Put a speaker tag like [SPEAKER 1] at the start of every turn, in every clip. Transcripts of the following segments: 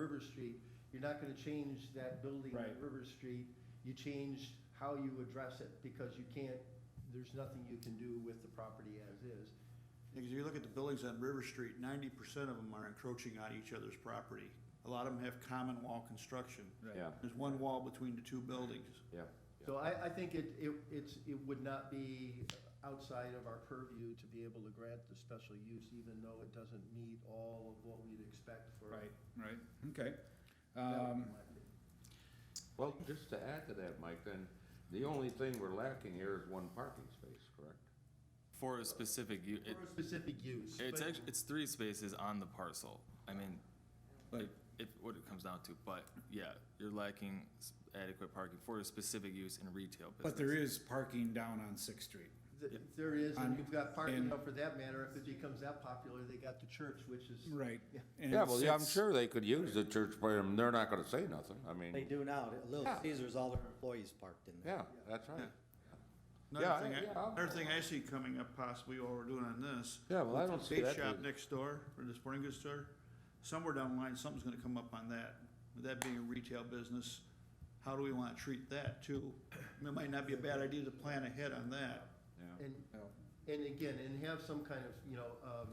[SPEAKER 1] River Street, you're not gonna change that building
[SPEAKER 2] Right.
[SPEAKER 1] on River Street. You change how you address it, because you can't, there's nothing you can do with the property as is.
[SPEAKER 3] Because you look at the buildings on River Street, ninety percent of them are encroaching on each other's property. A lot of them have common wall construction.
[SPEAKER 2] Right.
[SPEAKER 4] Yeah,
[SPEAKER 3] There's one wall between the two buildings.
[SPEAKER 4] yeah.
[SPEAKER 1] So I, I think it, it, it's, it would not be outside of our purview to be able to grant the special use, even though it doesn't meet all of what we'd expect for.
[SPEAKER 2] Right, right, okay.
[SPEAKER 1] Mm-hmm. That would be
[SPEAKER 2] Um,
[SPEAKER 1] my opinion.
[SPEAKER 4] Well, just to add to that, Mike, then, the only thing we're lacking here is one parking space, correct?
[SPEAKER 5] For a specific, u- it,
[SPEAKER 1] For a specific use.
[SPEAKER 5] it's
[SPEAKER 1] but-
[SPEAKER 5] actually, it's three spaces on the parcel. I mean, it, it, what it comes down to, but yeah, you're lacking s- adequate parking for a specific use in retail business.
[SPEAKER 2] But there is parking down on Sixth Street.
[SPEAKER 1] Th- There is, and
[SPEAKER 2] On-
[SPEAKER 1] you've got parking,
[SPEAKER 2] and-
[SPEAKER 1] now for that matter, if it becomes that popular, they got the church, which is.
[SPEAKER 2] Right.
[SPEAKER 4] Yeah, well, yeah, I'm sure they could use the church, but um, they're not gonna say nothing, I
[SPEAKER 6] They
[SPEAKER 4] mean,
[SPEAKER 6] do now. At Little
[SPEAKER 4] Yeah.
[SPEAKER 6] Caesar's, all their employees parked in there.
[SPEAKER 4] yeah, that's right. Yeah,
[SPEAKER 3] Another thing, I-
[SPEAKER 4] yeah.
[SPEAKER 3] another thing I see coming up possibly while we're doing on this.
[SPEAKER 4] Yeah, well, I don't see that
[SPEAKER 3] Bait shop
[SPEAKER 4] being-
[SPEAKER 3] next door, or the sporting goods store, somewhere down the line, something's gonna come up on that. With that being a retail business, how do we wanna treat that too? It might not be a bad idea to plan ahead on that.
[SPEAKER 4] Yeah.
[SPEAKER 1] And,
[SPEAKER 2] Oh,
[SPEAKER 1] and again, and have some kind of, you know, um,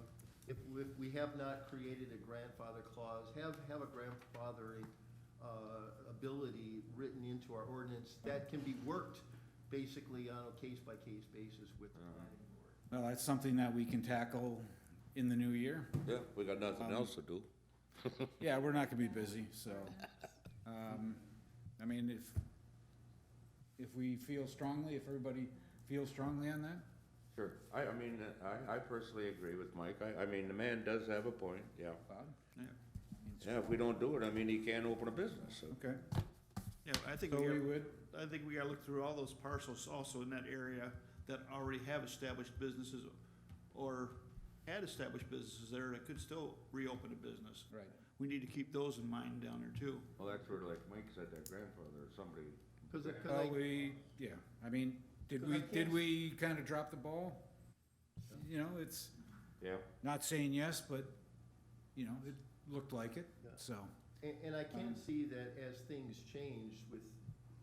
[SPEAKER 1] if, if we have not created a grandfather clause, have, have a grandfathering, uh, ability written into our ordinance that can be worked basically on a case-by-case basis with the planning board.
[SPEAKER 2] Well, that's something that we can tackle in the new year.
[SPEAKER 4] Yeah, we got nothing else to do.
[SPEAKER 2] Yeah, we're not gonna be busy, so, um, I mean, if, if we feel strongly, if everybody feels strongly on that,
[SPEAKER 4] Sure, I, I mean, I, I personally agree with Mike, I, I mean, the man does have a point, yeah.
[SPEAKER 2] Bob?
[SPEAKER 3] Yeah,
[SPEAKER 4] Yeah, if we don't do it, I mean, he can't open a business, so.
[SPEAKER 2] Okay,
[SPEAKER 3] Yeah, I think.
[SPEAKER 2] so
[SPEAKER 3] we
[SPEAKER 2] we
[SPEAKER 3] are-
[SPEAKER 2] would,
[SPEAKER 3] I think we gotta look through all those parcels also in that area that already have established businesses or had established businesses there that could still reopen a business.
[SPEAKER 2] right,
[SPEAKER 3] We need to keep those in mind down there too.
[SPEAKER 4] Well, that's where, like Mike said, that grandfather, or somebody,
[SPEAKER 1] Cause, it- cause
[SPEAKER 2] well,
[SPEAKER 1] I,
[SPEAKER 2] we, yeah, I mean, did
[SPEAKER 1] Because I
[SPEAKER 2] we,
[SPEAKER 1] can't-
[SPEAKER 2] did we kinda drop the ball? You know, it's,
[SPEAKER 4] yeah,
[SPEAKER 2] not saying yes, but, you know, it looked like it, so.
[SPEAKER 1] And, and I can see that as things change with,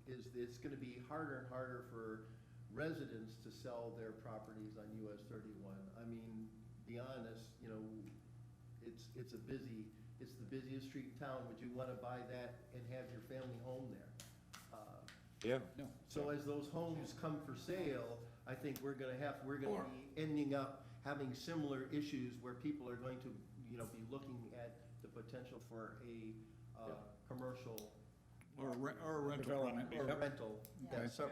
[SPEAKER 1] is, it's gonna be harder and harder for residents to sell their properties on US thirty-one. I mean, be honest, you know, it's, it's a busy, it's the busiest street in town, would you wanna buy that and have your family home there? Uh,
[SPEAKER 4] yeah.
[SPEAKER 2] No.
[SPEAKER 1] So as those homes come for sale, I think we're gonna have, we're gonna be ending up having similar issues where people are going to, you know, be looking at the potential for a, uh, commercial
[SPEAKER 3] Or a re- or a rental.
[SPEAKER 2] Development.
[SPEAKER 1] or
[SPEAKER 2] Yep.
[SPEAKER 1] rental.
[SPEAKER 2] Okay.
[SPEAKER 1] So,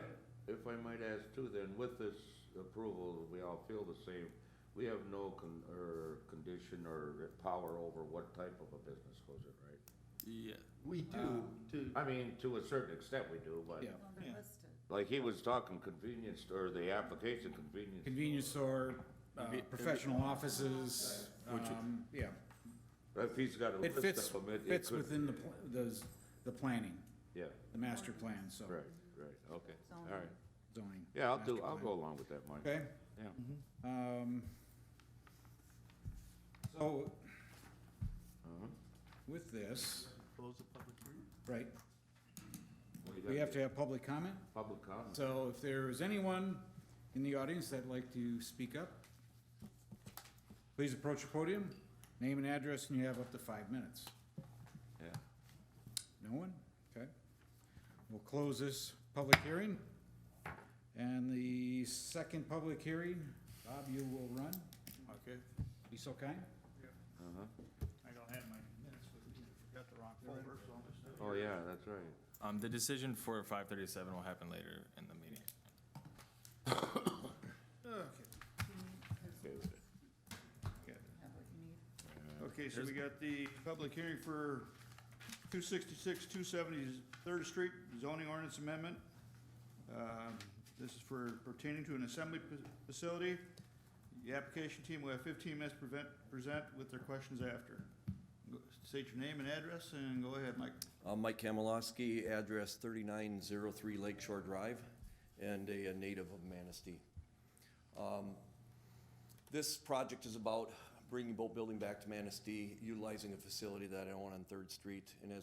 [SPEAKER 4] If I might ask too, then with this approval, we all feel the same. We have no con, or condition or power over what type of a business goes it, right?
[SPEAKER 5] Yeah,
[SPEAKER 1] we do, to,
[SPEAKER 4] I mean, to a certain extent we do, but
[SPEAKER 2] Yeah.
[SPEAKER 7] Well, they're
[SPEAKER 3] Yeah.
[SPEAKER 7] listed.
[SPEAKER 4] like he was talking convenience store, the application convenience.
[SPEAKER 2] Convenience store, uh,
[SPEAKER 5] Conve-
[SPEAKER 2] professional offices, um, yeah.
[SPEAKER 4] store. If he's got a
[SPEAKER 2] It fits,
[SPEAKER 4] list of them, it- it
[SPEAKER 2] fits
[SPEAKER 4] could-
[SPEAKER 2] within the, pl- those, the planning,
[SPEAKER 4] Yeah,
[SPEAKER 2] the master plan, so.
[SPEAKER 4] right, right, okay, all right.
[SPEAKER 2] Zoning.
[SPEAKER 4] Yeah, I'll do,
[SPEAKER 2] master
[SPEAKER 4] I'll
[SPEAKER 2] plan.
[SPEAKER 4] go along with that, Mike.
[SPEAKER 2] Okay,
[SPEAKER 4] Yeah,
[SPEAKER 2] um, so,
[SPEAKER 4] Uh-huh.
[SPEAKER 2] with this,
[SPEAKER 1] close the public hearing.
[SPEAKER 2] right, we have to have public comment?
[SPEAKER 4] Public comment.
[SPEAKER 2] So if there is anyone in the audience that'd like to speak up, please approach the podium, name and address, and you have up to five minutes.
[SPEAKER 4] Yeah.
[SPEAKER 2] No one? Okay. We'll close this public hearing. And the second public hearing, Bob, you will run.
[SPEAKER 3] Okay,
[SPEAKER 2] Be so kind.
[SPEAKER 4] Uh-huh.
[SPEAKER 3] I don't have my minutes with me, I forgot the wrong folder, so I'm just.
[SPEAKER 4] Oh, yeah, that's right.
[SPEAKER 5] um, the decision for five thirty-seven will happen later in the meeting.
[SPEAKER 3] Okay,
[SPEAKER 4] Okay with it.
[SPEAKER 3] okay.
[SPEAKER 7] Have what you need.
[SPEAKER 3] Okay, so we got the public hearing for two sixty-six, two seventy, Third Street zoning ordinance amendment. Um, This is for pertaining to an assembly fa- facility. The application team will have fifteen minutes to prevent, present with their questions after. Go- State your name and address and go ahead, Mike.
[SPEAKER 8] I'm Mike Kamalowski, address 3903 Lakeshore Drive, and a a native of Manistee. Um, This project is about bringing Boat Building back to Manistee, utilizing a facility that I own on Third Street. And as